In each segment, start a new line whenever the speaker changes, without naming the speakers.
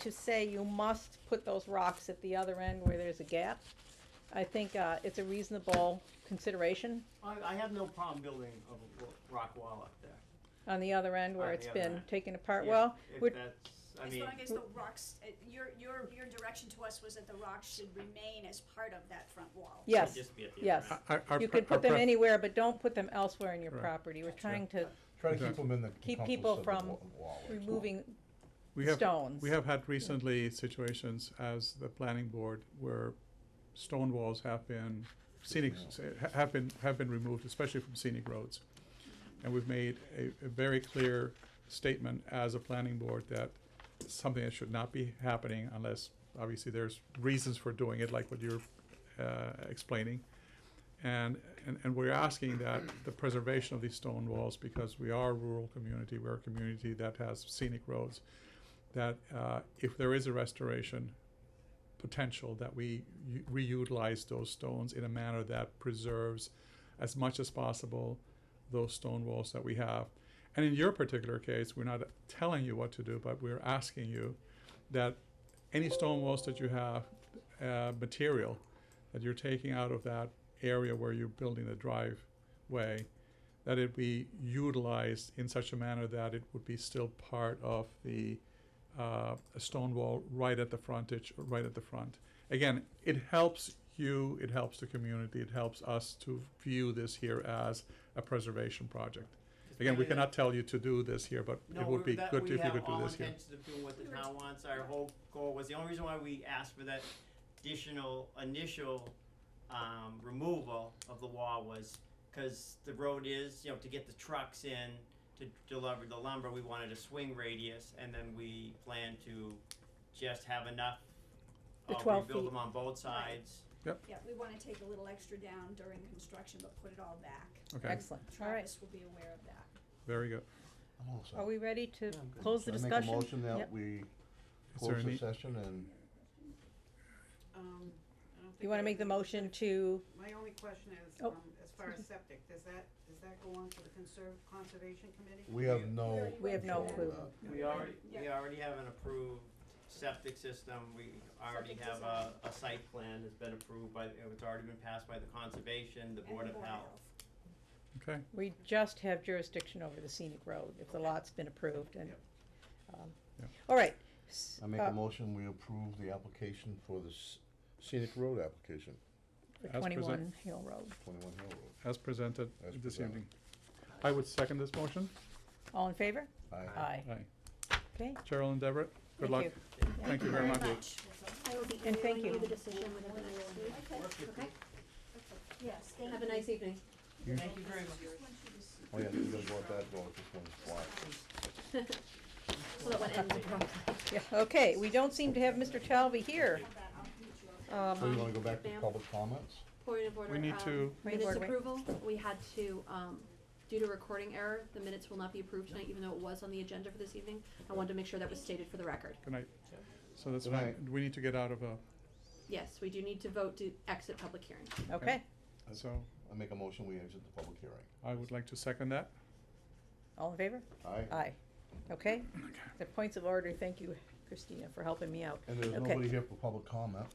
to say you must put those rocks at the other end where there's a gap. I think, uh, it's a reasonable consideration
I, I have no problem building a w- rock wall up there.
on the other end where
On
it's
the other
been
end.
taken apart.
If-
Well, we're,
If that's, I
As
mean,
long as the rocks, uh, your, your, your direction to us was that the rocks should remain as part of that front wall.
yes.
It'd just be at the
yes.
other end.
Our- our
You
pre-
could
our
put them
pref-
anywhere, but don't put them elsewhere in your
Right.
property. We're trying to,
Try to
Okay.
keep them in the.
Keep
compass
people
of the
from
wa- wall, that's all.
removing
We have,
stones.
we have had recently situations as the planning board where stone walls have been scenic, eh, ha- have been, have been removed, especially from scenic roads. And we've made a, a very clear statement as a planning board that it's something that should not be happening unless, obviously, there's reasons for doing it, like what you're, uh, explaining. And, and, and we're asking that the preservation of these stone walls, because we are a rural community, we're a community that has scenic roads, that uh, if there is a restoration potential, that we u- reutilize those stones in a manner that preserves as much as possible those stone walls that we have. And in your particular case, we're not telling you what to do, but we're asking you that any stone walls that you have, uh, material that you're taking out of that area where you're building the driveway, that it be utilized in such a manner that it would be still part of the uh, a stone wall right at the frontage, right at the front. Again, it helps you, it helps the community, it helps us to view this here as a preservation project. Again, we
maybe that-
cannot tell you to do this here, but
no,
it would
we're-
be
that
good
we
if you
have
could do
all
this here.
intentions of doing what the
We were
town wants, our whole goal was, the only reason why we asked for that additional, initial, um, removal of the wall was because the road is, you know, to get the trucks in, to deliver the lumber, we wanted a swing radius, and then we planned to just have enough.
The
uh,
12
Rebuild
feet.
them on both sides.
Yeah, we wanna take a little extra down during construction, but put it all back.
Okay,
excellent. All right.
Travis will be aware of that.
very good.
I'm all set.
Are we ready to
Yeah, I'm good.
close the
Should
discussion?
I make a motion
Yep.
that we
Is there
close the
any,
session and
Um, I don't think.
You wanna
I
make the
have
motion
anything.
to,
My only question is,
Oh.
um, as far as septic, does that, does that go on to the conserve, conservation committee?
we have no. uh,
We have
no
control
clue.
of that.
We already, we
Yeah.
already have an approved septic system, we already
Septic
have a, a site plan that's been approved by, it's already been passed by the conservation, the
And
board of health.
okay,
we just have jurisdiction over the scenic road if the lot's been approved and,
Yep.
um,
Yeah.
all right. S-
I make
uh,
a motion, we approve the application for the s- scenic road application,
For
As present-
twenty-one Hill Road.
twenty-one Hill Road.
as presented
As
this
presented.
evening. I would second this motion.
All in favor?
Aye.
Aye.
Aye.
Okay,
Cheryl and Deborah, good
Thank
luck.
you.
Thank you very much.
I will be
And thank
emailing you
you.
the decision within the next week.
Work with
Okay.
Yes, thank you.
Have a nice evening.
you. Thank you very much.
Oh, yeah, you guys want that, well, this one's black.
So that one ends abruptly.
yeah, okay, we don't seem to have Mr. Talby here.
So you
Um,
wanna go back to
ma'am.
public comments?
Point of order.
We need
um,
to-
Point of
Minutes
order, wait.
approval, we had to, um, due to recording error, the minutes will not be approved tonight, even though it was on the agenda for this evening. I wanted to make sure that was stated for the record.
Good night. So that's
Good
fine.
night.
We need to get out of, uh,
Yes, we do need to vote to exit public hearing.
Okay,
so
I make a motion, we exit the public hearing.
I would like to second that.
all in favor?
Aye?
Aye. Okay, the points of order, thank you, Christina, for helping me out.
And there's
Okay.
nobody here for public comment,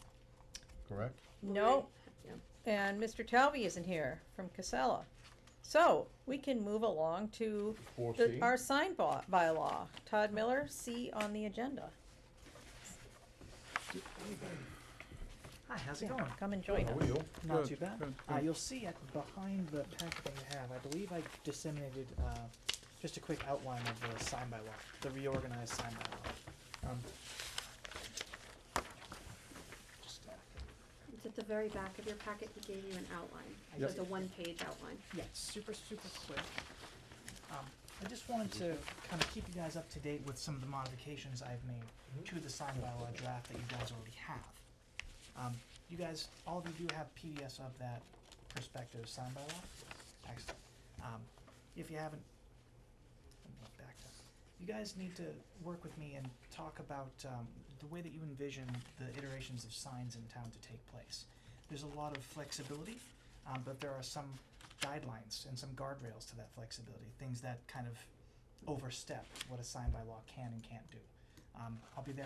correct?
No,
Yeah.
and Mr. Talby isn't here from Casella. So, we can move along to
Four
the-
C?
our sign by, bylaw. Todd Miller, C on the agenda.
Hi, how's it
Yeah,
going?
Come and join
How
us.
are you?
Not
Good,
too bad.
good,
Uh,
good.
you'll see at behind the packet that you have, I believe I disseminated uh, just a quick outline of the sign by law, the reorganized sign by law. Um, just, uh,
It's at the very back of your packet, he gave you an outline, so
Yep.
it's a one-page outline.
yeah, it's super, super quick. Um, I just wanted to kind of keep you guys up to date with some of the modifications I've made to the sign by law draft that you guys already have. Um, you guys, all of you do have PDFs of that prospective sign by law. Excellent. Um, if you haven't, let me look back up. You guys need to work with me and talk about um, the way that you envision the iterations of signs in town to take place. There's a lot of flexibility, um, but there are some guidelines and some guardrails to that flexibility, things that kind of overstep what a sign by law can and can't do. Um, I'll be there